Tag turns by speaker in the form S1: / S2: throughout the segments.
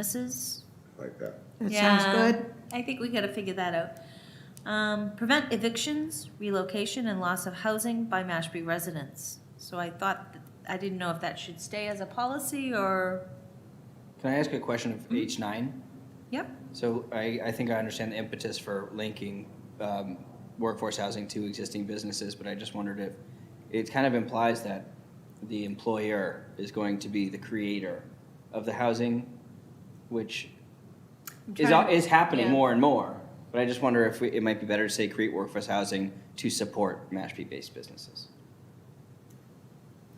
S1: businesses.
S2: like that.
S3: That sounds
S1: Yeah,
S3: good.
S1: I think we gotta figure that out. Um, prevent evictions, relocation, and loss of housing by Mashpee residents. So I thought, that- I didn't know if that should stay as a policy or,
S4: Can I ask a question of H nine?
S1: yep,
S4: So I, I think I understand the impetus for linking um, workforce housing to existing businesses, but I just wondered if, it kind of implies that the employer is going to be the creator of the housing, which
S1: I'm
S4: is,
S1: trying-
S4: is happening
S1: yeah.
S4: more and more. But I just wonder if we, it might be better to say create workforce housing to support Mashpee-based businesses.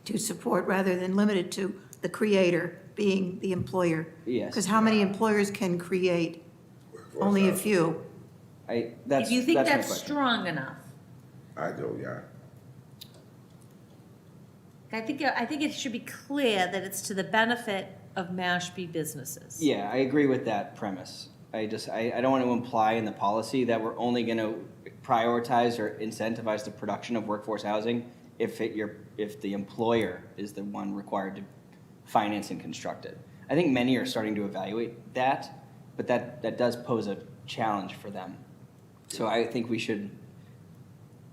S3: To support rather than limited to the creator being the employer.
S4: Yes.
S3: Because how many employers can create?
S2: Workforce
S3: Only a
S2: housing.
S3: few.
S4: I, that's,
S1: if you think
S4: my
S1: that's
S4: question.
S1: strong enough.
S2: I do, yeah.
S1: I think, I think it should be clear that it's to the benefit of Mashpee businesses.
S4: Yeah, I agree with that premise. I just, I, I don't want to imply in the policy that we're only going to prioritize or incentivize the production of workforce housing if it, your, if the employer is the one required to finance and construct it. I think many are starting to evaluate that, but that, that does pose a challenge for them. So I think we should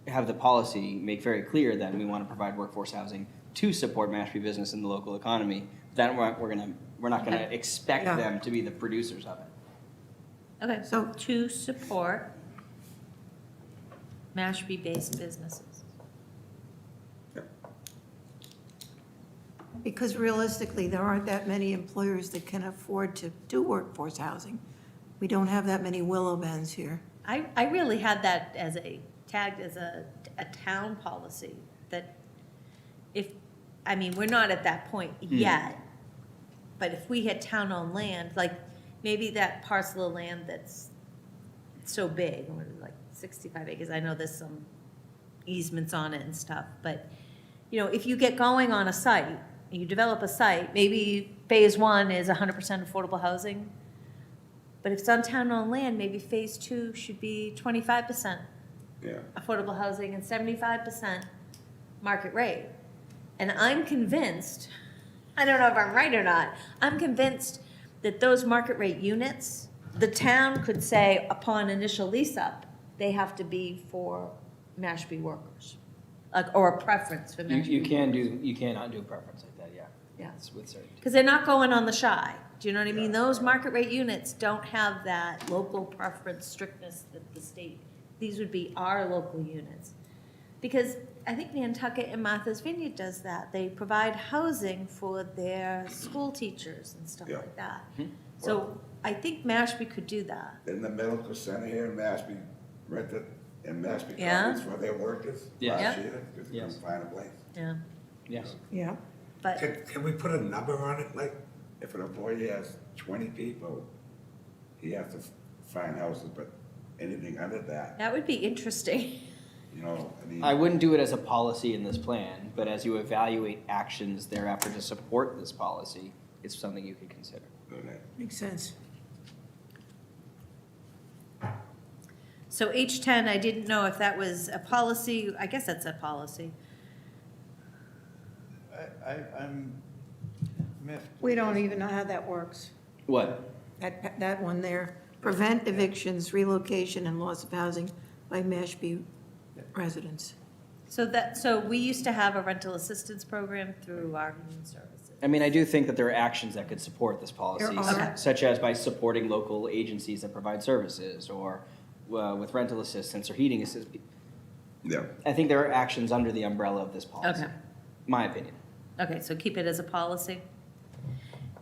S4: have the policy make very clear that we want to provide workforce housing to support Mashpee business and the local economy. Then we're, we're gonna, we're not gonna
S1: Okay.
S4: expect
S3: Yeah.
S4: them to be the producers of it.
S1: Okay, so
S3: So-
S1: to support Mashpee-based businesses.
S3: Because realistically, there aren't that many employers that can afford to do workforce housing. We don't have that many willow bends here.
S1: I, I really had that as a, tagged as a, a town policy, that if, I mean, we're not at that point yet, but if we had town-owned land, like, maybe that parcel of land that's so big, what is it, like sixty-five acres, I know there's some easements on it and stuff, but, you know, if you get going on a site, you develop a site, maybe phase one is hundred percent affordable housing, but if it's on town-owned land, maybe phase two should be twenty-five percent
S2: Yeah.
S1: affordable housing and seventy-five percent market rate. And I'm convinced, I don't know if I'm right or not, I'm convinced that those market rate units, the town could say upon initial lease up, they have to be for Mashpee workers, like, or a preference for Mashpee.
S4: You, you can do, you cannot do preference like that, yeah.
S1: Yeah.
S4: It's With certainty.
S1: Because they're not going on the shy. Do you know what I mean?
S2: Yeah.
S1: Those market rate units don't have that local preference strictness that the state, these would be our local units. Because I think Nantucket and Martha's Vineyard does that. They provide housing for their school teachers and stuff
S2: Yeah. Mm-hmm.
S1: like that.
S4: Mhm.
S1: So I think Mashpee could do that.
S2: In the medical center here in Mashpee, rented in Mashpee
S1: Yeah.
S2: Commons for their workers
S4: Yeah.
S2: last
S1: Yeah.
S2: year, because they
S4: Yes.
S2: couldn't find a place.
S1: Yeah.
S4: Yes.
S3: Yeah.
S1: But,
S2: Can, can we put a number on it, like, if an employee has twenty people, he has to f- find houses, but anything under that,
S1: that would be interesting.
S2: you know, I mean.
S4: I wouldn't do it as a policy in this plan, but as you evaluate actions thereafter to support this policy, it's something you could consider.
S2: do that.
S3: Makes sense.
S1: So H ten, I didn't know if that was a policy. I guess that's a policy.
S5: I, I, I'm miffed.
S3: We don't even know how that works.
S4: What?
S3: That, that one there. Prevent evictions, relocation, and loss of housing by Mashpee residents.
S1: So that, so we used to have a rental assistance program through our human services.
S4: I mean, I do think that there are actions that could support this policy,
S3: There are.
S4: s- such as by supporting local agencies that provide services, or uh, with rental assistance or heating assistance.
S2: Yeah,
S4: I think there are actions under the umbrella of this policy.
S1: Okay.
S4: My opinion.
S1: Okay, so keep it as a policy.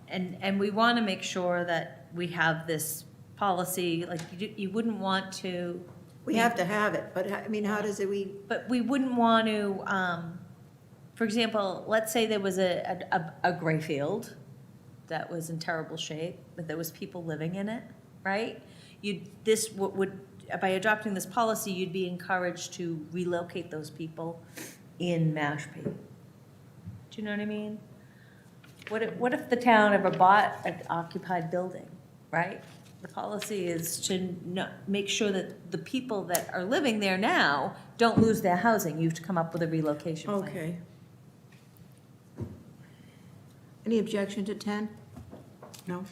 S1: And, and we want to make sure that we have this policy, like, you, do- you wouldn't want to,
S3: We have to have it, but I mean, how does it, we,
S1: but we wouldn't want to, um, for example, let's say there was a, a- a, a gray field that was in terrible shape, but there was people living in it, right? You, this wo- would, by adopting this policy, you'd be encouraged to relocate those people in Mashpee. Do you know what I mean? What if, what if the town ever bought an occupied building, right? The policy is to no, make sure that the people that are living there now don't lose their housing. You have to come up with a relocation plan.
S3: okay. Any objection to 10? No?